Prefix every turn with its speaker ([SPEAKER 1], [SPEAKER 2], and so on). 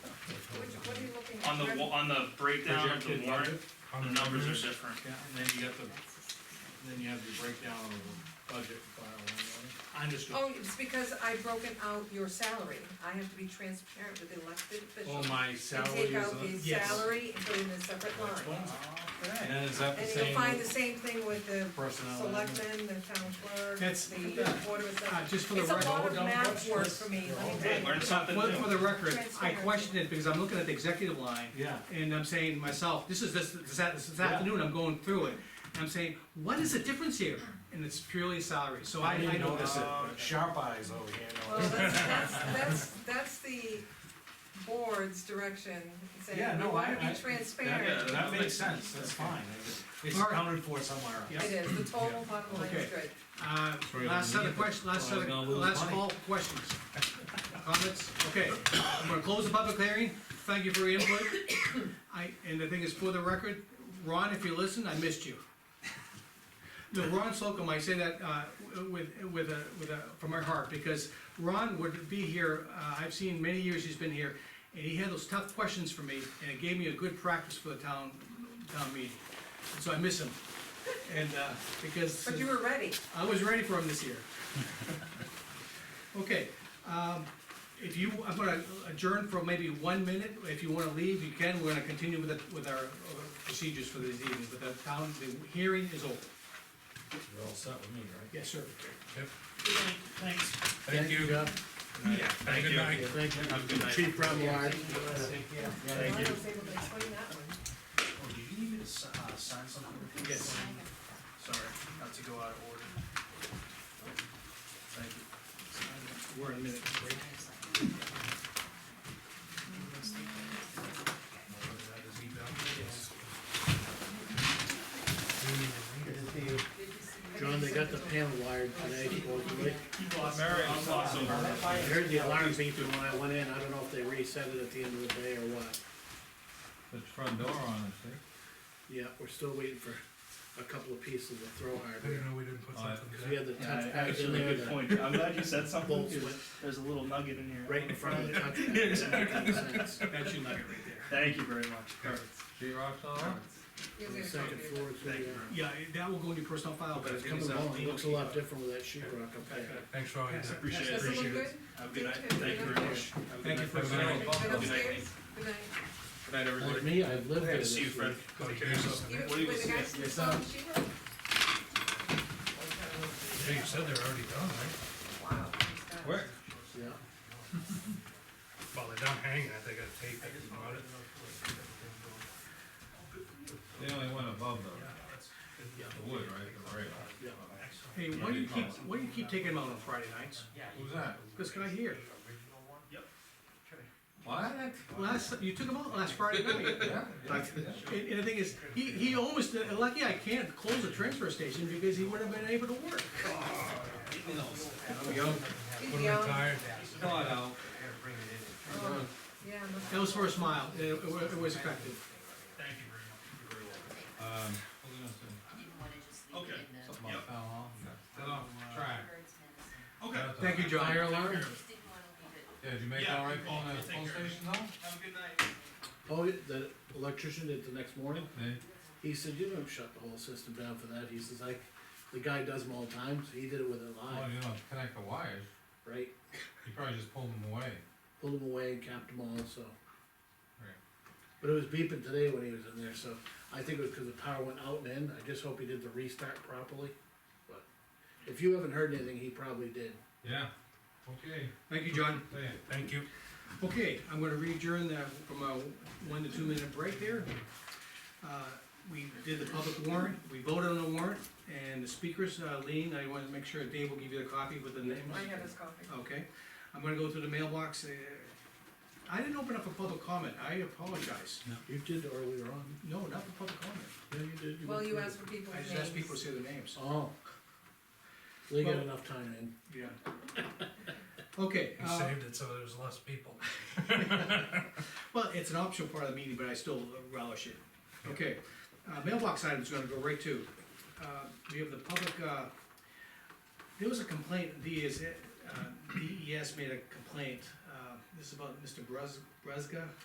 [SPEAKER 1] on the, wa- on the breakdown of the
[SPEAKER 2] projected
[SPEAKER 1] warrant,
[SPEAKER 2] budget
[SPEAKER 1] the
[SPEAKER 2] on
[SPEAKER 1] numbers are
[SPEAKER 2] revenues.
[SPEAKER 1] different.
[SPEAKER 2] Yeah, and then you got the, then you have the breakdown of the budget file. on it. I understood.
[SPEAKER 3] Oh, it's because I've broken out your salary, I have to be transparent with the elected
[SPEAKER 2] Oh,
[SPEAKER 3] officials.
[SPEAKER 2] my
[SPEAKER 3] And
[SPEAKER 2] salary
[SPEAKER 3] take
[SPEAKER 2] is
[SPEAKER 3] out
[SPEAKER 2] on.
[SPEAKER 3] the
[SPEAKER 2] yes.
[SPEAKER 3] salary and put it in a separate line.
[SPEAKER 2] And then is that the
[SPEAKER 3] And you'll
[SPEAKER 2] same
[SPEAKER 3] find the same thing with the
[SPEAKER 2] personnel? element?
[SPEAKER 3] selectmen, the town clerk,
[SPEAKER 4] That's-
[SPEAKER 3] the board of
[SPEAKER 4] Uh,
[SPEAKER 3] assessors.
[SPEAKER 4] just for the
[SPEAKER 3] It's a
[SPEAKER 4] record.
[SPEAKER 3] lot of
[SPEAKER 2] don't
[SPEAKER 3] math
[SPEAKER 2] touch
[SPEAKER 3] work
[SPEAKER 2] this.
[SPEAKER 3] for me,
[SPEAKER 2] You're all
[SPEAKER 3] let me
[SPEAKER 1] Hey,
[SPEAKER 3] tell you.
[SPEAKER 1] learn something
[SPEAKER 4] For, for
[SPEAKER 1] new.
[SPEAKER 4] the record, I
[SPEAKER 3] Transparency.
[SPEAKER 4] questioned it because I'm looking at the executive line,
[SPEAKER 2] Yeah,
[SPEAKER 4] and I'm saying to myself, this is this, this, a- this
[SPEAKER 2] Yeah.
[SPEAKER 4] afternoon, I'm going through it. I'm saying, what is the difference here? And it's purely salary, so I,
[SPEAKER 2] I
[SPEAKER 4] I
[SPEAKER 2] didn't notice
[SPEAKER 4] notice it.
[SPEAKER 2] it, sharp eyes over
[SPEAKER 3] Well,
[SPEAKER 2] here.
[SPEAKER 3] that's, that's, that's, that's the board's direction, saying,
[SPEAKER 2] Yeah,
[SPEAKER 3] we
[SPEAKER 2] no,
[SPEAKER 3] wanna
[SPEAKER 2] I- I-
[SPEAKER 3] be transparent.
[SPEAKER 1] Yeah,
[SPEAKER 2] That,
[SPEAKER 1] that
[SPEAKER 2] that
[SPEAKER 1] makes
[SPEAKER 2] makes sense, that's fine, it's accounted for somewhere else.
[SPEAKER 3] It is, the total bottom line is
[SPEAKER 4] Okay.
[SPEAKER 3] good.
[SPEAKER 4] Uh,
[SPEAKER 2] Sorry, I
[SPEAKER 4] last set
[SPEAKER 2] didn't
[SPEAKER 4] of
[SPEAKER 2] mean
[SPEAKER 4] questions, last
[SPEAKER 2] I
[SPEAKER 4] set
[SPEAKER 2] was
[SPEAKER 4] of,
[SPEAKER 2] gonna lose
[SPEAKER 4] last
[SPEAKER 2] money.
[SPEAKER 4] call for questions. Comments? Okay, I'm gonna close the public hearing, thank you for your input. I, and the thing is, for the record, Ron, if you listen, I missed you. No, Ron Slocum, I say that, uh, with, with a, with a, from my heart, because Ron would be here, uh, I've seen many years he's been here, and he had those tough questions for me, and it gave me a good practice for the town, town meeting. So I miss him, and, uh, because.
[SPEAKER 3] But you were ready.
[SPEAKER 4] I was ready for him this year. Okay, um, if you, I'm gonna adjourn for maybe one minute, if you wanna leave, you can, we're gonna continue with the, with our uh, procedures for this evening, but the town, the hearing is over.
[SPEAKER 2] You're all set with me, right?
[SPEAKER 4] Yes, sir.
[SPEAKER 5] Thanks.
[SPEAKER 2] Thank you.
[SPEAKER 5] Yeah,
[SPEAKER 1] Thank you.
[SPEAKER 5] Good night.
[SPEAKER 2] Thank you.
[SPEAKER 1] Have a good night.
[SPEAKER 2] Chief Brown,
[SPEAKER 3] I
[SPEAKER 2] Thank
[SPEAKER 3] was
[SPEAKER 2] you.
[SPEAKER 3] able to explain that one.
[SPEAKER 5] Oh, did you need me to si- uh, sign something?
[SPEAKER 4] Yes.
[SPEAKER 5] Sorry, not to go out of order. Thank you.
[SPEAKER 4] We're in a minute break.
[SPEAKER 6] John, they got the panel wired today supposedly.
[SPEAKER 1] Mary, I'm lost over.
[SPEAKER 6] I heard the alarm beeping when I went in, I don't know if they reset it at the end of the day or what.
[SPEAKER 2] Put the front door on it,
[SPEAKER 6] Yeah, we're still waiting for a couple of pieces of throw hardware,
[SPEAKER 2] we didn't put
[SPEAKER 6] something cause we had the touchpad in
[SPEAKER 1] Actually,
[SPEAKER 6] there,
[SPEAKER 1] good
[SPEAKER 6] the
[SPEAKER 1] point. I'm glad you said something.
[SPEAKER 6] bolts
[SPEAKER 1] 'cause
[SPEAKER 6] went
[SPEAKER 1] There's a little nugget in here.
[SPEAKER 6] right in front of the touchpad.
[SPEAKER 4] That's your nugget right there.
[SPEAKER 1] Thank you very much.
[SPEAKER 2] She rocks all right?
[SPEAKER 3] Here's
[SPEAKER 6] On the
[SPEAKER 3] a
[SPEAKER 6] second
[SPEAKER 3] copy of
[SPEAKER 6] floor, so
[SPEAKER 1] Thank you.
[SPEAKER 6] yeah.
[SPEAKER 4] Yeah, that will go in your personal file, but it's coming
[SPEAKER 6] Oh, Coming
[SPEAKER 4] out.
[SPEAKER 6] along, it looks a lot different with that sheet rock up there.
[SPEAKER 2] Thanks for all
[SPEAKER 4] your
[SPEAKER 1] I Appreciate
[SPEAKER 3] Does
[SPEAKER 1] it.
[SPEAKER 3] it look good?
[SPEAKER 1] Have a good night. Thank you very much.
[SPEAKER 4] Thank you for.
[SPEAKER 2] Have a good night.
[SPEAKER 3] Good
[SPEAKER 1] Good night,
[SPEAKER 3] upstairs?
[SPEAKER 1] Nate.
[SPEAKER 3] Good night.
[SPEAKER 1] Good night,
[SPEAKER 6] Like me, I've lived there
[SPEAKER 1] Good to
[SPEAKER 6] this
[SPEAKER 1] see you,
[SPEAKER 6] week.
[SPEAKER 1] Fred. Take care of yourself.
[SPEAKER 3] Even
[SPEAKER 1] What do you
[SPEAKER 3] with the
[SPEAKER 1] see?
[SPEAKER 3] guys from
[SPEAKER 6] Yes,
[SPEAKER 3] Salt
[SPEAKER 6] um,
[SPEAKER 3] and Cheetah?
[SPEAKER 2] Yeah, you said they're already done, right?
[SPEAKER 3] Wow. he's fast.
[SPEAKER 6] Yeah,
[SPEAKER 2] Well, they're done hanging, I think I taped it on it.
[SPEAKER 7] They only went above the, the wood, right, the rail.
[SPEAKER 6] yeah.
[SPEAKER 4] Hey, why do you keep, why do you keep taking them out on Friday nights?
[SPEAKER 7] Who's that?
[SPEAKER 4] This guy here,
[SPEAKER 7] What?
[SPEAKER 4] last, you took them out last Friday night.
[SPEAKER 7] Yeah, yeah, yeah.
[SPEAKER 4] And, and the thing is, he, he almost, uh, lucky I can't close the transfer station because he wouldn't have been able to work.
[SPEAKER 7] I'm young.
[SPEAKER 3] He's young.
[SPEAKER 7] Thought out.
[SPEAKER 3] Oh, Yeah. must-
[SPEAKER 4] That was for a smile, it, it wa- it was effective.
[SPEAKER 5] Thank you very much. You're very welcome.
[SPEAKER 7] Um, what was I gonna say?
[SPEAKER 1] Okay.
[SPEAKER 7] Something about fell off. Fell off track.
[SPEAKER 1] Okay.
[SPEAKER 4] Thank you, John.
[SPEAKER 6] Fire alarm?
[SPEAKER 7] Yeah, did you make
[SPEAKER 1] Yeah,
[SPEAKER 7] all right
[SPEAKER 1] we'll-
[SPEAKER 7] on
[SPEAKER 1] we'll
[SPEAKER 7] the
[SPEAKER 1] take
[SPEAKER 7] pole
[SPEAKER 1] care of it.
[SPEAKER 7] station though?
[SPEAKER 1] Have a good night.
[SPEAKER 6] Oh, the electrician did the next morning,
[SPEAKER 7] They,
[SPEAKER 6] He said, you don't shut the whole system down for that, he says, like, the guy does them all the time, so he did it with it
[SPEAKER 7] well,
[SPEAKER 6] live,
[SPEAKER 7] oh, you know, connect the wires,
[SPEAKER 6] right?
[SPEAKER 7] you probably just pulled them away.
[SPEAKER 6] Pulled them away and capped them all, so.
[SPEAKER 7] Right.
[SPEAKER 6] But it was beeping today when he was in there, so I think it was cause the power went out and in, I just hope he did the restart properly, but if you haven't heard anything, he probably did.
[SPEAKER 7] Yeah, okay,
[SPEAKER 4] Thank you, John.
[SPEAKER 7] say it.
[SPEAKER 2] Thank you.
[SPEAKER 4] Okay, I'm gonna adjourn that from a one to two minute break there. Uh, We did the public warrant, we voted on the warrant, and the speakers, uh, Lean, I wanna make sure Dave will give you the copy with the names.
[SPEAKER 3] I have his copy.
[SPEAKER 4] Okay, I'm gonna go through the mailbox. uh, I didn't open up for public comment, I apologize.
[SPEAKER 6] You did earlier on,
[SPEAKER 4] No, not for public comment.
[SPEAKER 6] yeah, you did. went
[SPEAKER 3] Well, you
[SPEAKER 6] through.
[SPEAKER 3] asked for people's
[SPEAKER 4] I
[SPEAKER 3] names.
[SPEAKER 4] just asked people to say their names.
[SPEAKER 6] Oh. They got
[SPEAKER 4] Well-
[SPEAKER 6] enough time in,
[SPEAKER 4] Yeah. Okay,
[SPEAKER 2] You
[SPEAKER 4] uh,
[SPEAKER 2] saved it so there's less people.
[SPEAKER 4] well, it's an optional part of the meeting, but I still relish it. Okay, uh, mailbox item's gonna go right to, uh, we have the public, uh, there was a complaint, E DES, uh, DES made a complaint, uh, this is about Mr. Brez, Brezga.